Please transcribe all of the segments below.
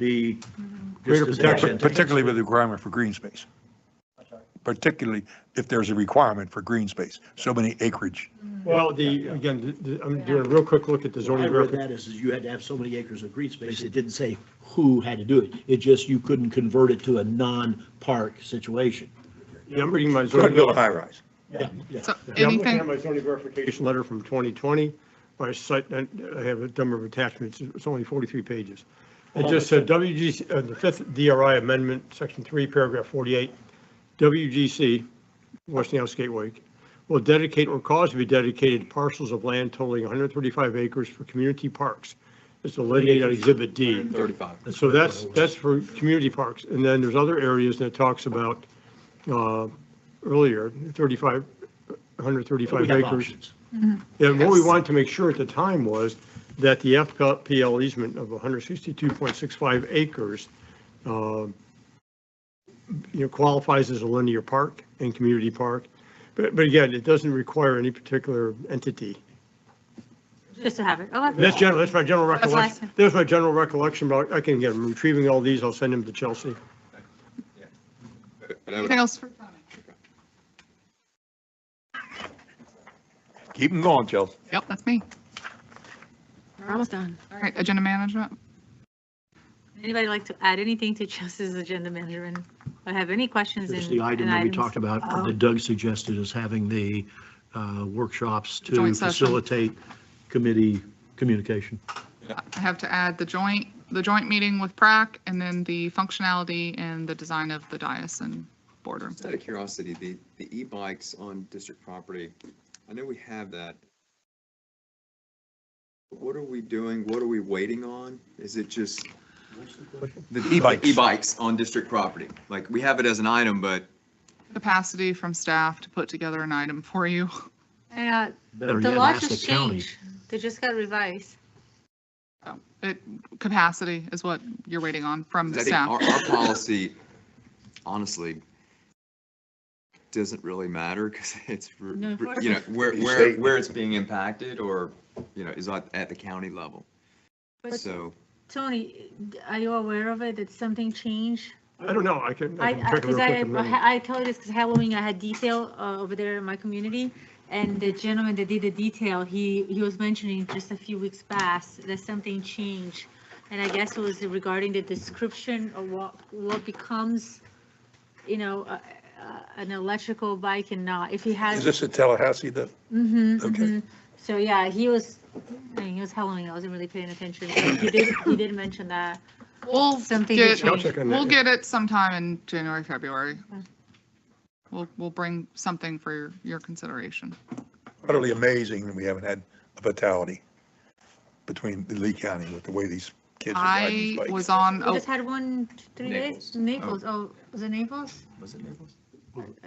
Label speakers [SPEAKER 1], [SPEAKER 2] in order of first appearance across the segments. [SPEAKER 1] be
[SPEAKER 2] Greater
[SPEAKER 1] just as
[SPEAKER 2] protection,
[SPEAKER 1] advantageous.
[SPEAKER 2] particularly with the requirement for green space. Particularly if there's a requirement for green space, so many acreage.
[SPEAKER 3] Well, the, again, the- the- I'm doing a real quick look at the
[SPEAKER 1] When I
[SPEAKER 3] zoning
[SPEAKER 1] read
[SPEAKER 3] verification.
[SPEAKER 1] that is, is you had to have so many acres of green space. It didn't say who had to do it. It just, you couldn't convert it to a non-park situation.
[SPEAKER 3] Yeah, I'm reading my zoning.
[SPEAKER 2] Could build a high rise.
[SPEAKER 1] Yeah, yeah.
[SPEAKER 4] So
[SPEAKER 3] Yeah, I'm looking
[SPEAKER 4] anything,
[SPEAKER 3] at my zoning verification letter from 2020, my site, and I have a number of attachments, it's only 43 pages. It just said WGC, uh, the fifth DRI amendment, section three, paragraph 48, WGC, Westinghouse Gateway, will dedicate or cause to be dedicated parcels of land totaling 135 acres for community parks. It's delineated on exhibit D.
[SPEAKER 5] 35.
[SPEAKER 3] And So that's, that's for community parks. And then there's other areas that it talks about uh, earlier, 35,
[SPEAKER 1] We
[SPEAKER 3] 135
[SPEAKER 1] have
[SPEAKER 3] acres.
[SPEAKER 1] options.
[SPEAKER 3] And what we
[SPEAKER 4] Yes.
[SPEAKER 3] wanted to make sure at the time was that the FPL easement of 162.65 acres, um, you know, qualifies as a linear park and community park. But, but again, it doesn't require any particular entity.
[SPEAKER 6] Just to have it, Oh, okay.
[SPEAKER 3] That's general, that's my general
[SPEAKER 6] That's what I
[SPEAKER 3] recollection. That's my general recollection, but I can get, I'm retrieving all these, I'll send them to Chelsea.
[SPEAKER 4] anything else for Tony?
[SPEAKER 2] Keep them going, Chelsea.
[SPEAKER 4] Yep, that's me.
[SPEAKER 6] We're almost done.
[SPEAKER 4] All right, agenda management.
[SPEAKER 6] Anybody like to add anything to Chelsea's agenda management? Or have any questions?
[SPEAKER 1] There's
[SPEAKER 6] in-
[SPEAKER 1] the item
[SPEAKER 6] in
[SPEAKER 1] that we
[SPEAKER 6] items?
[SPEAKER 1] talked about,
[SPEAKER 6] Oh.
[SPEAKER 1] that Doug suggested is having the uh, workshops to
[SPEAKER 4] Joint session.
[SPEAKER 1] facilitate committee communication.
[SPEAKER 4] I have to add the joint, the joint meeting with Prac and then the functionality and the design of the dais and boardroom.
[SPEAKER 5] Just out of curiosity, the, the e-bikes on district property, I know we have that. What are we doing? What are we waiting on? Is it just? The the
[SPEAKER 2] E-bikes.
[SPEAKER 5] E-bikes on district property. Like, we have it as an item, but
[SPEAKER 4] Capacity from staff to put together an item for you.
[SPEAKER 6] Yeah,
[SPEAKER 1] Better
[SPEAKER 6] the
[SPEAKER 1] yet,
[SPEAKER 6] law
[SPEAKER 1] ask the
[SPEAKER 6] just
[SPEAKER 1] county.
[SPEAKER 6] changed. They just got revised.
[SPEAKER 4] So It, capacity is what you're waiting on from the
[SPEAKER 5] I think our,
[SPEAKER 4] staff.
[SPEAKER 5] our policy, honestly, doesn't really matter because it's, r-
[SPEAKER 6] No, of
[SPEAKER 5] r-
[SPEAKER 6] course
[SPEAKER 5] you know,
[SPEAKER 6] not.
[SPEAKER 5] where, where, where it's being impacted or, you know, is at, at the county level.
[SPEAKER 6] But
[SPEAKER 5] So,
[SPEAKER 6] Tony, are you aware of it? Did something change?
[SPEAKER 3] I don't know, I can, I
[SPEAKER 6] I,
[SPEAKER 3] can check real
[SPEAKER 6] because
[SPEAKER 3] quick.
[SPEAKER 6] I,
[SPEAKER 3] in a minute.
[SPEAKER 6] I I tell you this because Halloween, I had detail uh, over there in my community. And the gentleman that did the detail, he, he was mentioning just a few weeks past that something changed. And I guess it was regarding the description of what, what becomes, you know, a- a- an electrical bike and not, if he has.
[SPEAKER 2] Is this a Tallahassee that?
[SPEAKER 6] Mhm,
[SPEAKER 2] Okay.
[SPEAKER 6] mhm. So, yeah, he was, I mean, he was Halloween, I wasn't really paying attention. but He did, he did mention that.
[SPEAKER 4] We'll
[SPEAKER 6] Something
[SPEAKER 4] get-
[SPEAKER 6] to
[SPEAKER 3] I'll check on that.
[SPEAKER 4] We'll get it sometime in January, February.
[SPEAKER 6] Mm.
[SPEAKER 4] We'll, we'll bring something for your, your consideration.
[SPEAKER 2] Utterly amazing that we haven't had a fatality between the Lee County with the way these kids are riding
[SPEAKER 4] I
[SPEAKER 2] these bikes.
[SPEAKER 4] was on,
[SPEAKER 6] We
[SPEAKER 4] a-
[SPEAKER 6] just had one, t- three days, Naples, oh, was it Naples?
[SPEAKER 5] was it Naples?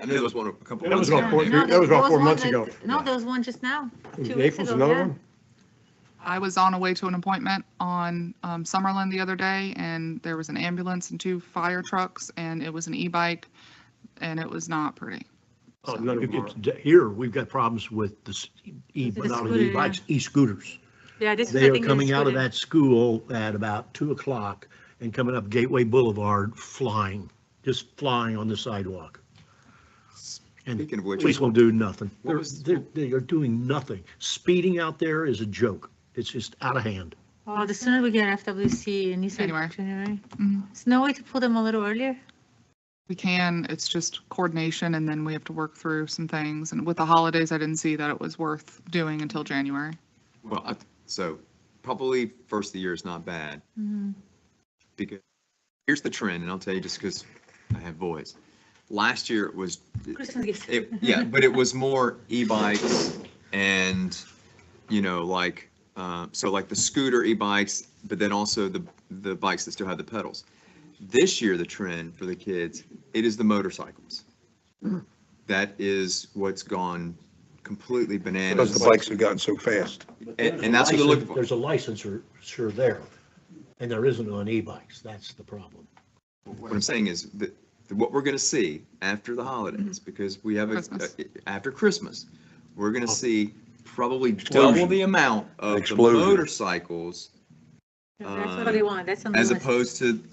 [SPEAKER 5] I know there was one a couple.
[SPEAKER 3] That was
[SPEAKER 5] months
[SPEAKER 3] about
[SPEAKER 5] ago.
[SPEAKER 3] four-
[SPEAKER 6] No,
[SPEAKER 3] that was about
[SPEAKER 6] there
[SPEAKER 3] four
[SPEAKER 6] one
[SPEAKER 3] months
[SPEAKER 6] that-
[SPEAKER 3] ago.
[SPEAKER 6] No, there was one just now.
[SPEAKER 3] In
[SPEAKER 6] two weeks
[SPEAKER 3] Naples,
[SPEAKER 6] ago,
[SPEAKER 3] another
[SPEAKER 6] yeah.
[SPEAKER 3] one?
[SPEAKER 4] I was on a way to an appointment on um, Summerlin the other day, and there was an ambulance and two fire trucks, and it was an e-bike, and it was not pretty.
[SPEAKER 3] Oh, none of them are.
[SPEAKER 1] It's- Here, we've got problems with the s- e,
[SPEAKER 6] With the
[SPEAKER 1] not
[SPEAKER 6] scooter, yeah.
[SPEAKER 1] e-bikes, e-scooters.
[SPEAKER 6] Yeah, this is. I
[SPEAKER 1] They are
[SPEAKER 6] think, the
[SPEAKER 1] coming out of
[SPEAKER 6] student.
[SPEAKER 1] that school at about 2 o'clock and coming up Gateway Boulevard flying, just flying on the sidewalk. And
[SPEAKER 5] Speaking of which.
[SPEAKER 1] police will do nothing.
[SPEAKER 5] What
[SPEAKER 1] They're,
[SPEAKER 5] was-
[SPEAKER 1] they're- they are doing nothing. Speeding out there is a joke. It's just out of hand.
[SPEAKER 6] Oh, the sooner we get FWC and you said
[SPEAKER 4] January.
[SPEAKER 6] January.
[SPEAKER 4] Mhm.
[SPEAKER 6] Is no way to pull them a little earlier?
[SPEAKER 4] We can, it's just coordination, and then we have to work through some things, and with the holidays, I didn't see that it was worth doing until January.
[SPEAKER 5] Well, I- so probably first of the year is not bad because here's the trend, and I'll tell you just because I have voice. Last year it was,
[SPEAKER 6] Christmas gifts.
[SPEAKER 5] it, yeah, but it was more e-bikes and, you know, like, uh, so like the scooter e-bikes, but then also the, the bikes that still have the pedals. This year, the trend for the kids, it is the motorcycles. That is what's gone completely bananas.
[SPEAKER 2] Because the bikes have gotten so fast.
[SPEAKER 5] And, and that's what they're looking for.
[SPEAKER 1] There's a licenser, sure there, and there isn't on e-bikes. That's the problem.
[SPEAKER 5] What I'm saying is that that what we're going to see after the holidays, because we have, a
[SPEAKER 4] Christmas.
[SPEAKER 5] uh, after Christmas, we're going to see probably double the amount of the
[SPEAKER 2] Explosion.
[SPEAKER 5] motorcycles
[SPEAKER 6] That's what they want, that's on the
[SPEAKER 5] as
[SPEAKER 6] list.
[SPEAKER 5] opposed to